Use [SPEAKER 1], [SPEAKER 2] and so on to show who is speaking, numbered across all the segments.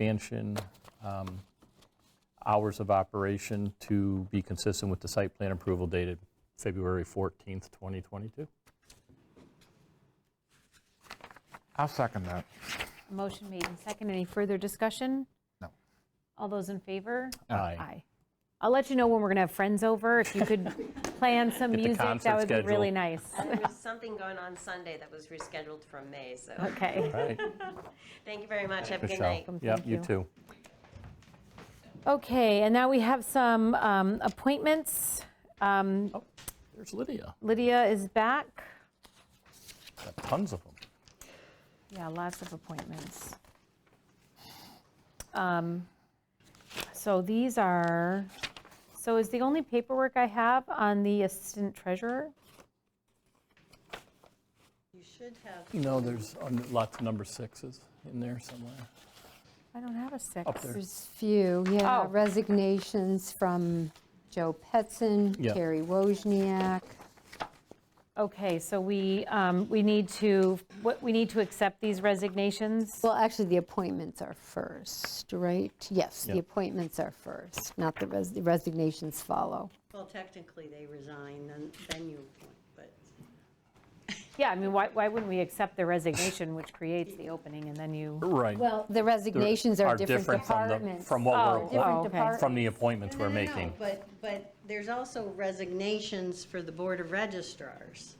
[SPEAKER 1] expansion, um, hours of operation to be consistent with the site plan approval dated February 14th, 2022.
[SPEAKER 2] I'll second that.
[SPEAKER 3] A Motion made and second. Any further discussion?
[SPEAKER 2] No.
[SPEAKER 3] All those in favor?
[SPEAKER 1] Aye.
[SPEAKER 3] Aye. I'll let you know when we're going to have friends over. If you could plan some
[SPEAKER 1] Get the
[SPEAKER 3] music,
[SPEAKER 1] concert
[SPEAKER 3] that would be
[SPEAKER 1] schedule.
[SPEAKER 3] really nice.
[SPEAKER 4] There was something going on Sunday that was rescheduled from May, so
[SPEAKER 3] Okay.
[SPEAKER 1] All right,
[SPEAKER 4] thank you very much. Have a good
[SPEAKER 1] Michelle.
[SPEAKER 4] night.
[SPEAKER 1] Yep,
[SPEAKER 3] Thank
[SPEAKER 1] you
[SPEAKER 3] you.
[SPEAKER 1] too.
[SPEAKER 3] Okay, and now we have some um, appointments. Um,
[SPEAKER 1] There's Lydia,
[SPEAKER 3] Lydia is back.
[SPEAKER 1] Got tons of them.
[SPEAKER 3] Yeah, lots of appointments. Um, So these are, so is the only paperwork I have on the assistant treasurer?
[SPEAKER 4] You should have,
[SPEAKER 1] You know, there's um, lots of number sixes in there somewhere.
[SPEAKER 3] I don't have a six.
[SPEAKER 1] Up there.
[SPEAKER 5] There's few, yeah,
[SPEAKER 3] Oh.
[SPEAKER 5] resignations from Joe Petson,
[SPEAKER 1] Yeah.
[SPEAKER 5] Terry Wojniak.
[SPEAKER 3] Okay, so we, um, we need to, what, we need to accept these resignations?
[SPEAKER 5] Well, actually, the appointments are first, right? Yes, the
[SPEAKER 1] Yeah.
[SPEAKER 5] appointments are first, not the res- the resignations follow.
[SPEAKER 6] Well, technically, they resign, then, then you appoint, but
[SPEAKER 3] Yeah, I mean, why, why wouldn't we accept the resignation, which creates the opening, and then you?
[SPEAKER 1] Right.
[SPEAKER 5] Well, the resignations are different
[SPEAKER 1] from the-
[SPEAKER 5] departments.
[SPEAKER 1] From what
[SPEAKER 3] Oh,
[SPEAKER 1] we're,
[SPEAKER 3] oh, okay.
[SPEAKER 1] from the appointments we're
[SPEAKER 6] No, no, no,
[SPEAKER 1] making.
[SPEAKER 6] But, but there's also resignations for the Board of registrars.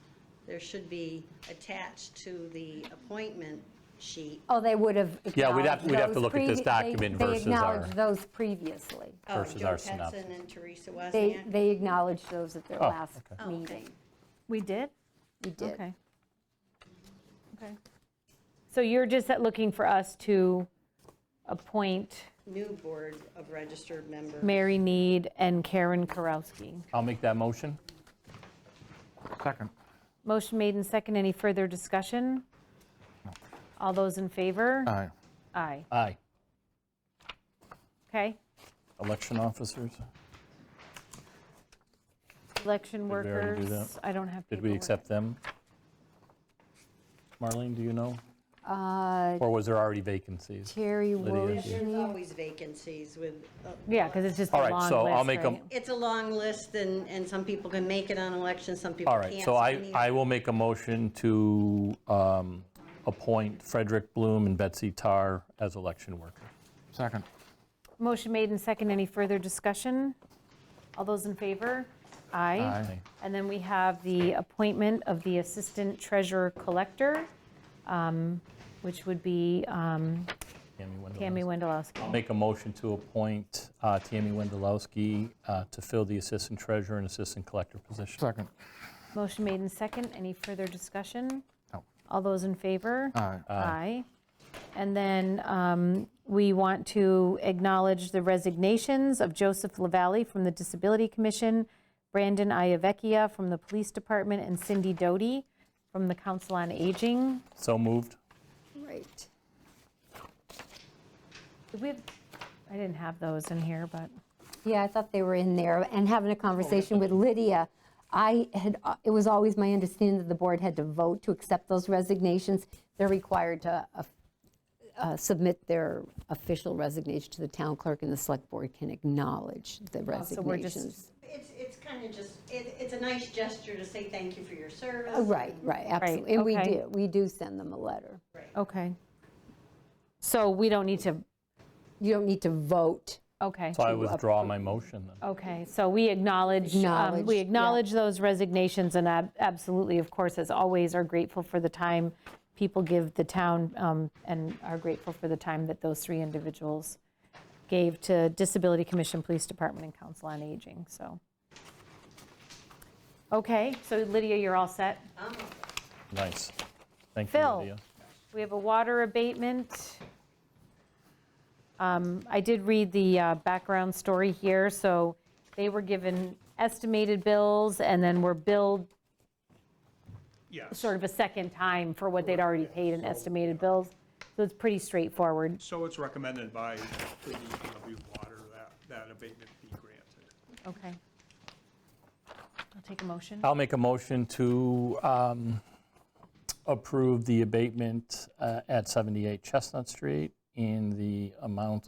[SPEAKER 6] There should be attached to the appointment sheet.
[SPEAKER 5] Oh, they would have acknowledged
[SPEAKER 1] Yeah, we'd have- we'd have to
[SPEAKER 5] those
[SPEAKER 1] look at this
[SPEAKER 5] previ- they-
[SPEAKER 1] document versus
[SPEAKER 5] They
[SPEAKER 1] our-
[SPEAKER 5] acknowledged those previously.
[SPEAKER 6] Oh,
[SPEAKER 1] Versus our
[SPEAKER 6] Joe
[SPEAKER 1] synopsis.
[SPEAKER 6] Petson and Teresa
[SPEAKER 5] They,
[SPEAKER 6] Wozniak.
[SPEAKER 5] they acknowledged those at their
[SPEAKER 1] Oh,
[SPEAKER 5] last
[SPEAKER 6] Oh, okay.
[SPEAKER 5] meeting.
[SPEAKER 3] We did?
[SPEAKER 5] You did.
[SPEAKER 3] Okay. Okay. So you're just looking for us to appoint
[SPEAKER 6] New Board of Registered Members.
[SPEAKER 3] Mary Need and Karen Karowski.
[SPEAKER 1] I'll make that motion.
[SPEAKER 2] Second.
[SPEAKER 3] Motion made and second. Any further discussion? All those in favor?
[SPEAKER 1] Uh.
[SPEAKER 2] Aye.
[SPEAKER 3] Aye.
[SPEAKER 1] Aye.
[SPEAKER 3] Okay.
[SPEAKER 1] Election officers.
[SPEAKER 3] Election
[SPEAKER 1] Did we already do
[SPEAKER 3] workers, I don't have
[SPEAKER 1] Did we
[SPEAKER 3] paperwork.
[SPEAKER 1] accept them? Marlene, do you know?
[SPEAKER 5] Uh,
[SPEAKER 1] Or was there already vacancies?
[SPEAKER 5] Terry
[SPEAKER 1] Lydia, do you-
[SPEAKER 5] Wojniak.
[SPEAKER 6] There's always vacancies with. a-
[SPEAKER 3] Yeah, because it's just a
[SPEAKER 1] All
[SPEAKER 3] long
[SPEAKER 1] right,
[SPEAKER 3] list,
[SPEAKER 1] so I'll make a-
[SPEAKER 3] right?
[SPEAKER 6] It's a long list, and, and some people can make it on elections, some people
[SPEAKER 1] All
[SPEAKER 6] can't.
[SPEAKER 1] right, so
[SPEAKER 6] we
[SPEAKER 1] I,
[SPEAKER 6] need-
[SPEAKER 1] I will make a motion to um, appoint Frederick Bloom and Betsy Tar as election worker.
[SPEAKER 2] Second.
[SPEAKER 3] Motion made and second. Any further discussion? All those in favor? Aye.
[SPEAKER 2] Aye.
[SPEAKER 3] And then we have the appointment of the Assistant Treasurer Collector, um, which would be um,
[SPEAKER 1] Tammy Wendelowski.
[SPEAKER 3] Tammy Wendelowski.
[SPEAKER 1] I'll make a motion to appoint uh, Tammy Wendelowski uh, to fill the assistant treasurer and assistant collector position.
[SPEAKER 2] Second.
[SPEAKER 3] Motion made and second. Any further discussion?
[SPEAKER 2] No.
[SPEAKER 3] All those in favor?
[SPEAKER 2] Aye.
[SPEAKER 3] Aye. And then um, we want to acknowledge the resignations of Joseph Lavalley from the Disability Commission, Brandon Iavecchia from the Police Department, and Cindy Doty from the Council on Aging.
[SPEAKER 1] So moved.
[SPEAKER 5] Right.
[SPEAKER 3] Did we have, I didn't have those in here, but,
[SPEAKER 5] Yeah, I thought they were in there, and having a conversation with Lydia, I had, uh, it was always my understanding that the board had to vote to accept those resignations. They're required to uh, uh, submit their official resignation to the town clerk, and the select board can acknowledge the
[SPEAKER 3] Oh, so we're just-
[SPEAKER 5] resignations.
[SPEAKER 6] It's, it's kind of just, it, it's a nice gesture to say thank you for your service.
[SPEAKER 5] Oh, Right, right, absolutely. And we
[SPEAKER 3] okay.
[SPEAKER 5] do, we do send them a letter.
[SPEAKER 3] okay. So we don't need to,
[SPEAKER 5] You don't need to vote.
[SPEAKER 3] okay,
[SPEAKER 1] So I withdraw my motion then.
[SPEAKER 3] okay. So we acknowledge, um,
[SPEAKER 5] Acknowledge,
[SPEAKER 3] we
[SPEAKER 5] yeah.
[SPEAKER 3] acknowledge those resignations and ab- absolutely, of course, as always, are grateful for the time people give the town um, and are grateful for the time that those three individuals gave to Disability Commission, Police Department, and Council on Aging, so. Okay, so Lydia, you're all set?
[SPEAKER 1] Nice. Thank you,
[SPEAKER 3] Phil.
[SPEAKER 1] Lydia.
[SPEAKER 3] We have a water abatement. Um, I did read the uh, background story here, so they were given estimated bills and then were billed
[SPEAKER 7] Yes.
[SPEAKER 3] sort of a second time for what they'd already paid in estimated bills. So it's pretty straightforward.
[SPEAKER 7] So it's recommended by the DPW Water that, that abatement be granted.
[SPEAKER 3] Okay. I'll take a motion.
[SPEAKER 1] I'll make a motion to um, approve the abatement uh, at 78 Chestnut Street in the amount